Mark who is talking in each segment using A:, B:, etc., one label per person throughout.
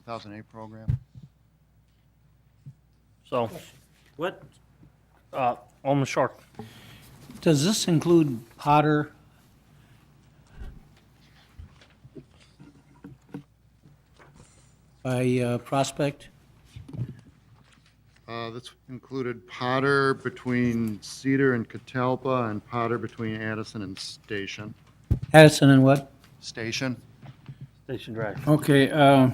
A: 2008 program.
B: So,
C: What,
B: uh, Alderman Short,
D: Does this include Potter? By uh, Prospect?
A: Uh, This included Potter between Cedar and Catalpa and Potter between Addison and Station.
D: Addison and what?
A: Station?
B: Station Drive.
D: Okay, uh,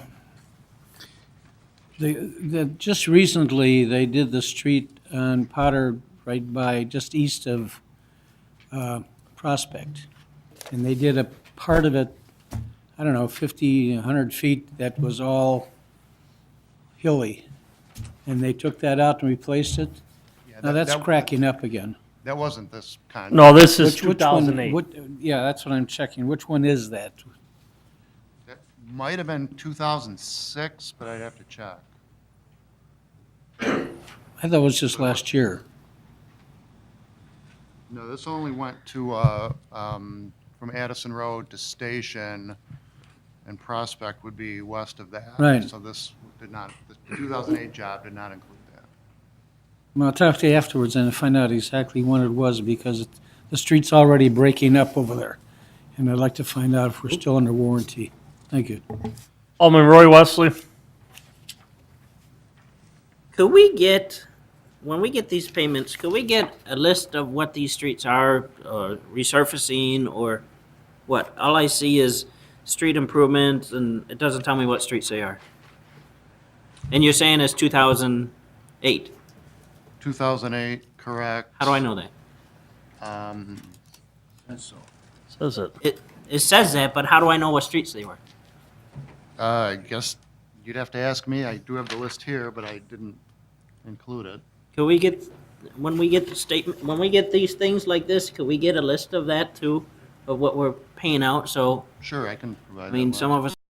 D: they, the, just recently, they did the street on Potter right by, just east of, uh, Prospect. And they did a part of it, I don't know, fifty, hundred feet that was all hilly. And they took that out and replaced it.
A: Yeah,
D: Now
A: that-
D: that's
A: that-
D: cracking up again.
A: That wasn't this contract.
B: No, this is
D: Which- which one-
B: 2008.
D: what- Yeah, that's what I'm checking. Which one is that?
A: That might have been 2006, but I'd have to check.
D: I thought it was just last year.
A: No, this only went to, uh, um, from Addison Road to Station, and Prospect would be west of that.
D: Right.
A: So this did not, the 2008 job did not include that.
D: Well, I'll talk to you afterwards and find out exactly when it was, because it- the street's already breaking up over there. And I'd like to find out if we're still under warranty. Thank you.
B: Alderman Roy Wesley,
C: could we get, when we get these payments, could we get a list of what these streets are, or resurfacing, or what? All I see is street improvements, and it doesn't tell me what streets they are. And you're saying it's two thousand eight.
A: 2008, correct.
C: How do I know that?
A: Um,
B: says it.
C: It, it says that, but how do I know what streets they were?
A: uh, I guess you'd have to ask me. I do have the list here, but I didn't include it.
C: Could we get, when we get the statement, when we get these things like this, could we get a list of that too, of what we're paying out? So,
A: Sure, I can provide
C: I
A: that.
C: mean, some
A: one.
C: of us